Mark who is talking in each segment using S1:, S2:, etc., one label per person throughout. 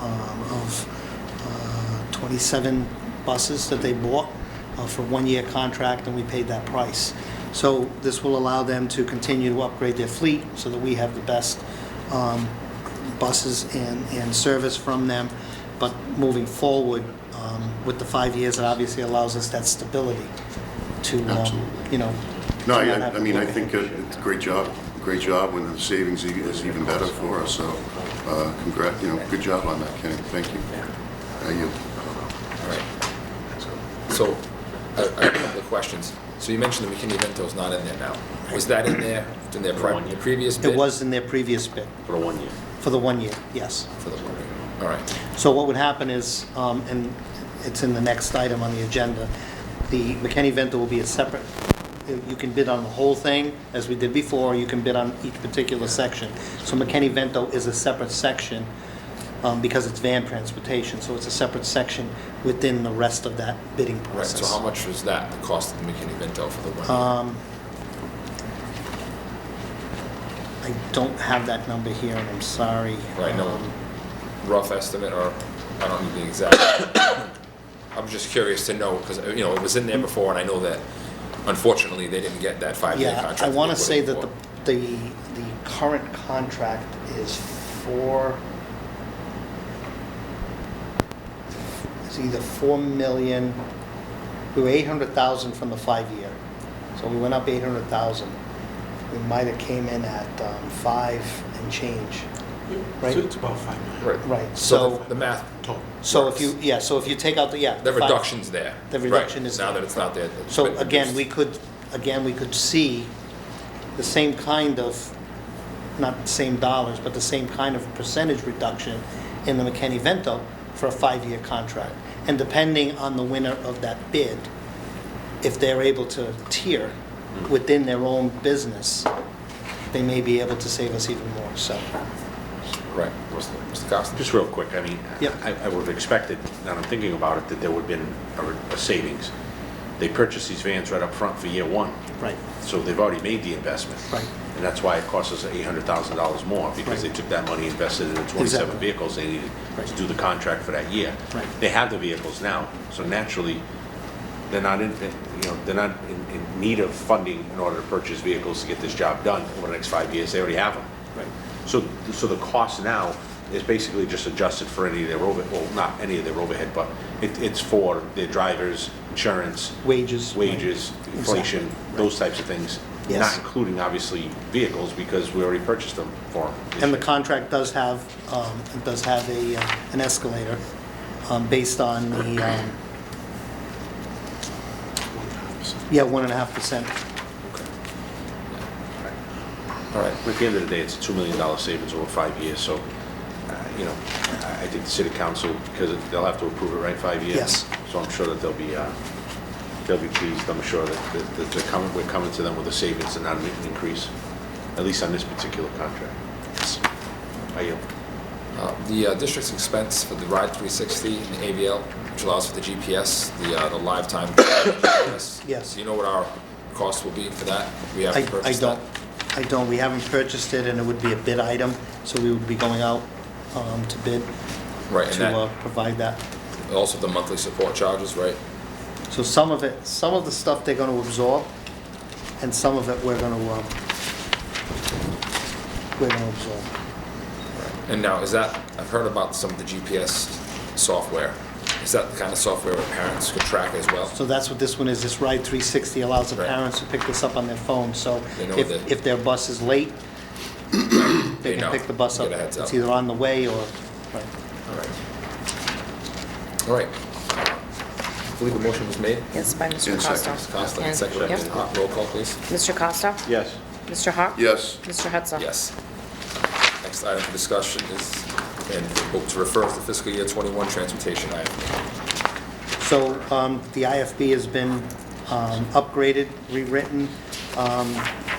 S1: um, 27 uh, buses that they bought uh, for one-year contract, and we paid that price. So this will allow them to continue to upgrade their fleet so that we have the best um, buses and, and service from them. But moving forward, um, with the five years, it obviously allows us that stability to, um,
S2: Absolutely.
S1: you know.
S2: No,
S1: to not
S2: I,
S1: have
S2: I
S1: to
S2: mean, I
S1: look at
S2: think uh, it's a great job, great job, and the savings e- is even better for us, so, uh, congrat, you know, good job on that, Kenny, thank you. Uh, you,
S3: So, a a couple of questions. So you mentioned the McKinney Vento's not in there now. Was that in there, in their pri- the previous bid?
S1: It was in their previous bid,
S4: for the one year.
S1: for the one year, yes.
S3: For the one year. All right,
S1: So what would happen is, um, and it's in the next item on the agenda, the McKinney Vento will be a separate, you can bid on the whole thing, as we did before, you can bid on each particular section. So McKinney Vento is a separate section, um, because it's van transportation, so it's a separate section within the rest of that bidding
S3: right.
S1: process.
S3: So how much was that, the cost of the McKinney Vento for the
S1: Uh,
S3: one year?
S1: I don't have that number here, and I'm sorry.
S3: Right, no
S1: Um,
S3: rough estimate, or I don't need the exact. I'm just curious to know, because, you know, it was in there before, and I know that unfortunately, they didn't get that five-year
S1: Yeah,
S3: contract.
S1: I
S3: they
S1: want to
S3: put in
S1: say that
S3: for.
S1: the, the, the current contract is for, it's either 4 million, we were 800,000 from the five-year, so we went up 800,000. We might have came in at um, five and change, right?
S5: So it's about five million.
S1: right, so-
S3: the- The math,
S5: Total.
S1: So if you, yeah, so if you take out the, yeah.
S3: the
S1: five-
S3: reduction's there.
S1: The
S3: Right,
S1: reduction is
S3: Now
S1: there.
S3: that it's not there. it's
S1: So
S3: been
S1: again, we
S3: reduced.
S1: could, again, we could see the same kind of, not the same dollars, but the same kind of percentage reduction in the McKinney Vento for a five-year contract. And depending on the winner of that bid, if they're able to tier within their own business, they may be able to save us even more, so.
S3: Right, what's the, what's the cost?
S4: Just real quick, I mean,
S1: Yep.
S4: I, I would have expected, now that I'm thinking about it, that there would have been a- a savings. They purchased these vans right up front for year one,
S1: Right.
S4: so they've already made the investment.
S1: Right.
S4: And that's why it cost us eight hundred thousand dollars more, because they
S1: Right.
S4: took that money, invested it in twenty-seven
S1: Exactly.
S4: vehicles they needed to
S1: Right.
S4: do the contract for that year.
S1: Right.
S4: They have the vehicles now, so naturally, they're not in, you know, they're not in, in need of funding in order to purchase vehicles to get this job done over the next five years, they already have them. So, so the cost now is basically just adjusted for any of their over, well, not any of their overhead, but it, it's for their drivers, insurance,
S1: Wages. right.
S4: wages, inflation, those types of things. Not
S1: Yes.
S4: including, obviously, vehicles, because we already purchased them for them.
S1: And the contract does have, um, it does have a, uh, an escalator um, based on the, um, yeah, 1.5%.
S3: All right,
S4: At the end of the day, it's a $2 million savings over five years, so, uh, you know, I I think the city council, because they'll have to approve it, right, five years?
S1: Yes.
S4: So I'm sure that they'll be, uh, they'll be pleased, I'm sure that that- that they're coming, we're coming to them with a savings and not an increase, at least on this particular contract. I yield.
S3: Uh, The uh, district's expense for the Ride 360 and the AVL, which allows for the GPS, the, uh, the live time GPS.
S1: Yes.
S3: Do you know what our cost will be for that? We have
S1: I,
S3: to
S1: I
S3: purchase that?
S1: don't, I don't, we haven't purchased it, and it would be a bid item, so we would be going out um, to bid
S3: Right, and
S1: to uh,
S3: that,
S1: provide that.
S3: also the monthly support charges, right?
S1: So some of it, some of the stuff they're going to absorb, and some of it we're going to, we're going to absorb.
S3: And now, is that, I've heard about some of the GPS software. Is that the kind of software where parents could track as well?
S1: So that's what this one is, this Ride 360 allows the
S3: Right.
S1: parents to pick this up on their phone, so
S3: They know
S1: if,
S3: that-
S1: if their bus is late, they
S3: They
S1: can
S3: know.
S1: pick the bus
S3: Get
S1: up.
S3: a heads
S1: It's
S3: up.
S1: either on the way or, right.
S3: All right. All right. I believe a motion was made.
S6: Yes, by Mr.
S2: And
S6: Costa.
S2: second.
S3: Mr. Costa,
S6: And-
S3: second.
S6: yep.
S3: Uh, Roll call, please.
S6: Mr. Costa?
S4: Yes.
S6: Mr. Hawk?
S2: yes,
S6: Mr. Hudson?
S3: Yes. Next item for discussion is, and vote to refer to fiscal year 21 transportation item.
S1: So um, the IFB has been um, upgraded, rewritten. Um,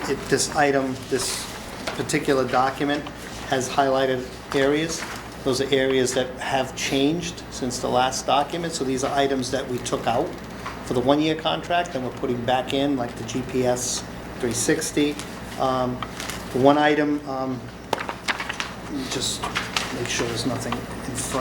S1: it- This item, this particular document has highlighted areas. Those are areas that have changed since the last document, so these are items that we took out for the one-year contract and we're putting back in, like the GPS 360. Um, The one item, um, just make sure there's nothing in front